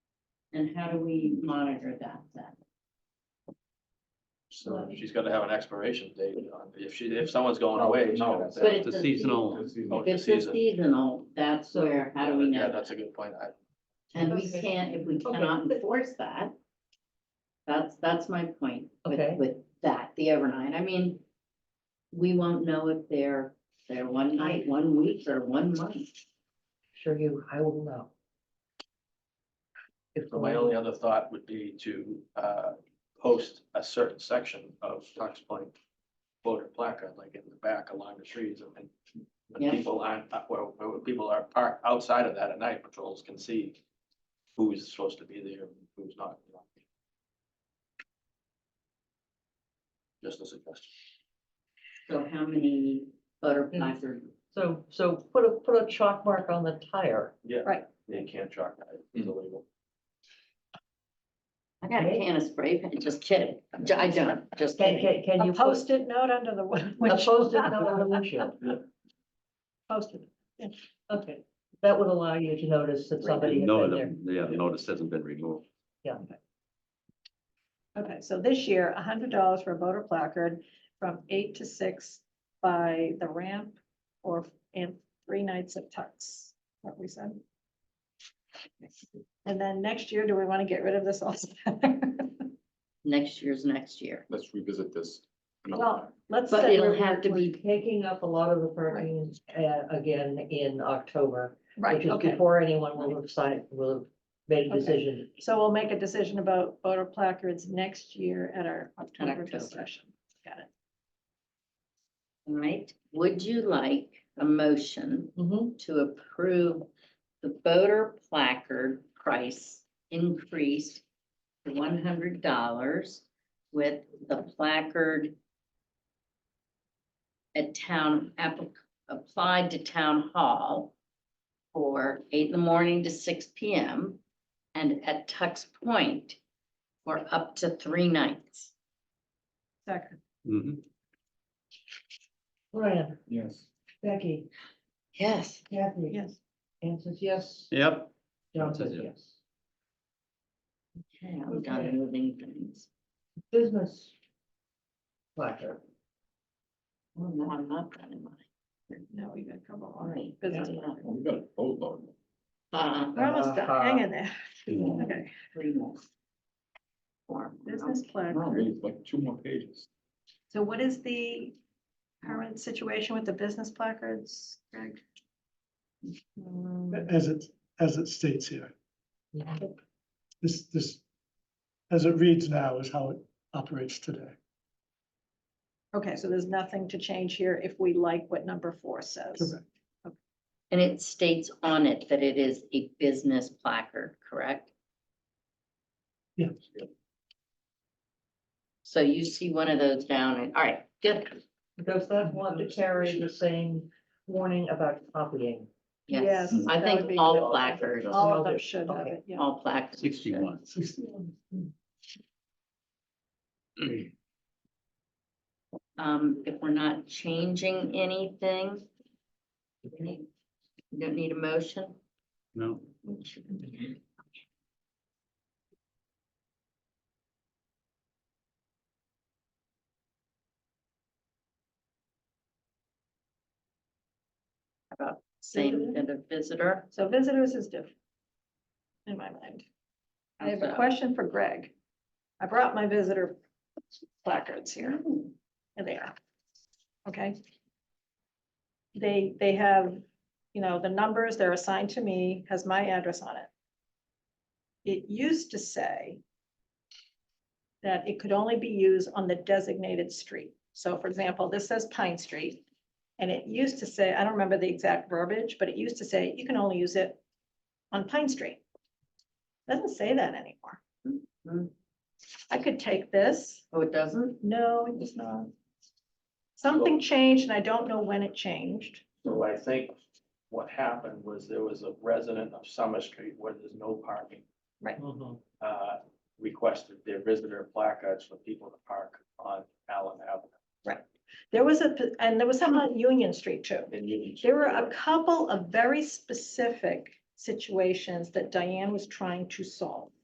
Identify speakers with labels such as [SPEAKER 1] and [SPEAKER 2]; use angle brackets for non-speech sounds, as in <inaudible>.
[SPEAKER 1] And how do we monitor that then?
[SPEAKER 2] So she's gonna have an expiration date on, if she, if someone's going away. she's
[SPEAKER 3] No,
[SPEAKER 2] gonna
[SPEAKER 3] it's-
[SPEAKER 2] say-
[SPEAKER 1] But it's
[SPEAKER 4] It's
[SPEAKER 1] a
[SPEAKER 4] a seasonal,
[SPEAKER 2] Oh,
[SPEAKER 1] If it's a
[SPEAKER 2] season.
[SPEAKER 1] seasonal, that's where, how do we
[SPEAKER 2] Yeah,
[SPEAKER 1] know?
[SPEAKER 2] That's a good point. I,
[SPEAKER 1] And we
[SPEAKER 5] Okay.
[SPEAKER 1] can't, if we cannot enforce that. That's, that's my point
[SPEAKER 5] Okay.
[SPEAKER 1] with, with that, the overnight. I mean, we won't know if they're, they're one night, one week, or one month.
[SPEAKER 5] Sure you, I will know. If
[SPEAKER 2] so my only other thought would be to, uh, post a certain section of Tux Point voter placard, like in the back along the trees and, and when
[SPEAKER 1] Yeah.
[SPEAKER 2] people aren't, uh, where, where people are parked outside of that at night, patrols can see who is supposed to be there, and who's not. you know. Just a suggestion.
[SPEAKER 1] So how many voter placards?
[SPEAKER 5] So, so put a, put a chalk mark on the tire.
[SPEAKER 2] Yeah.
[SPEAKER 6] Right.
[SPEAKER 2] They can't track that,
[SPEAKER 7] Hmm.
[SPEAKER 2] it's illegal.
[SPEAKER 1] I got a can of spray paint, just kidding. I don't, just
[SPEAKER 5] Can,
[SPEAKER 1] kidding.
[SPEAKER 5] can, can
[SPEAKER 6] a
[SPEAKER 5] you post,
[SPEAKER 6] post-it note under
[SPEAKER 5] <laughs>
[SPEAKER 6] the win-
[SPEAKER 5] a post-it
[SPEAKER 6] windshield.
[SPEAKER 5] note on the windshield?
[SPEAKER 6] Post-it.
[SPEAKER 5] Okay, that would allow you to notice that somebody had
[SPEAKER 4] no,
[SPEAKER 5] been there.
[SPEAKER 4] the, yeah, the notice hasn't been removed.
[SPEAKER 5] Yeah,
[SPEAKER 6] Okay, so this year, hundred dollars for a voter placard from eight to six by the ramp or, and three nights at Tux, what we said. And then next year, do we want to get rid of this also?
[SPEAKER 1] Next year's next year.
[SPEAKER 7] let's revisit this. another time.
[SPEAKER 6] <laughs> Well, let's.
[SPEAKER 1] But
[SPEAKER 6] say
[SPEAKER 1] it'll
[SPEAKER 6] we're-
[SPEAKER 1] have to be,
[SPEAKER 5] taking up a lot of the parking, uh, again, in October, which
[SPEAKER 6] Right,
[SPEAKER 5] is
[SPEAKER 6] okay,
[SPEAKER 5] before anyone will have signed, will have made a
[SPEAKER 6] Okay.
[SPEAKER 5] decision.
[SPEAKER 6] so we'll make a decision about voter placards next year at our October
[SPEAKER 1] October.
[SPEAKER 6] discussion. Got it.
[SPEAKER 1] all right. Would you like a motion
[SPEAKER 5] Mhm.
[SPEAKER 1] to approve the voter placard price increase to one hundred dollars with the placard at town, applic- applied to town hall for eight in the morning to six P M. and at Tux Point for up to three nights.
[SPEAKER 6] Second,
[SPEAKER 4] Mhm.
[SPEAKER 5] Brian,
[SPEAKER 3] Yes.
[SPEAKER 5] Becky,
[SPEAKER 1] Yes.
[SPEAKER 5] Kathy,
[SPEAKER 6] yes.
[SPEAKER 5] Anne says yes,
[SPEAKER 4] Yep,
[SPEAKER 5] John
[SPEAKER 4] John says
[SPEAKER 5] says yes.
[SPEAKER 1] Okay, I'm done
[SPEAKER 5] Okay.
[SPEAKER 1] moving things.
[SPEAKER 5] Business. Placard.
[SPEAKER 1] Oh, no, I'm not done in mine.
[SPEAKER 6] No, we got a couple
[SPEAKER 1] All
[SPEAKER 6] more.
[SPEAKER 1] right.
[SPEAKER 6] Business.
[SPEAKER 7] Well, We got a boatload.
[SPEAKER 1] Uh,
[SPEAKER 6] We're almost done, hang in there.
[SPEAKER 1] yeah.
[SPEAKER 6] Okay,
[SPEAKER 1] three more. Four.
[SPEAKER 6] business
[SPEAKER 7] I
[SPEAKER 6] plan.
[SPEAKER 7] don't read, it's like two more pages.
[SPEAKER 6] So what is the current situation with the business placards, Greg?
[SPEAKER 8] as it, as it states here.
[SPEAKER 5] Mhm.
[SPEAKER 8] This, this, as it reads now is how it operates today.
[SPEAKER 6] Okay, so there's nothing to change here if we like what number four says.
[SPEAKER 8] Correct.
[SPEAKER 1] And it states on it that it is a business placard, correct?
[SPEAKER 8] Yeah.
[SPEAKER 1] So you see one of those down and, all right, good.
[SPEAKER 5] Does that want to carry the same warning about copying?
[SPEAKER 1] Yes,
[SPEAKER 6] Yes,
[SPEAKER 1] I
[SPEAKER 6] that would
[SPEAKER 1] think
[SPEAKER 6] be
[SPEAKER 1] all
[SPEAKER 6] good.
[SPEAKER 1] placards,
[SPEAKER 6] All of
[SPEAKER 5] Okay.
[SPEAKER 6] them should have it, yeah.
[SPEAKER 1] all placards. should.
[SPEAKER 4] sixty-one.
[SPEAKER 1] Um, if we're not changing anything, we need- you don't need a motion?
[SPEAKER 4] No,
[SPEAKER 1] Same as a visitor.
[SPEAKER 6] So visitors is different. In my mind. I have a
[SPEAKER 1] So-
[SPEAKER 6] question for Greg. I brought my visitor placards here. And they are. Okay. They, they have, you know, the numbers, they're assigned to me, has my address on it. It used to say that it could only be used on the designated street. So for example, this says Pine Street. And it used to say, I don't remember the exact verbiage, but it used to say you can only use it on Pine Street. Doesn't say that
[SPEAKER 1] Hmm.
[SPEAKER 6] anymore. Mm-hmm. I could take this.
[SPEAKER 1] Oh, it doesn't?
[SPEAKER 6] No, it does not. Something changed and I don't know when it changed.
[SPEAKER 2] So I think what happened was there was a resident of Summer Street where there's no parking,
[SPEAKER 7] Mm-hmm.
[SPEAKER 5] Mhm.
[SPEAKER 2] uh, requested their visitor placards for people to park on Allen Avenue.
[SPEAKER 6] There was a, and there was some on Union Street too.
[SPEAKER 2] And you-
[SPEAKER 6] There were a couple of very specific situations that Diane was trying to solve.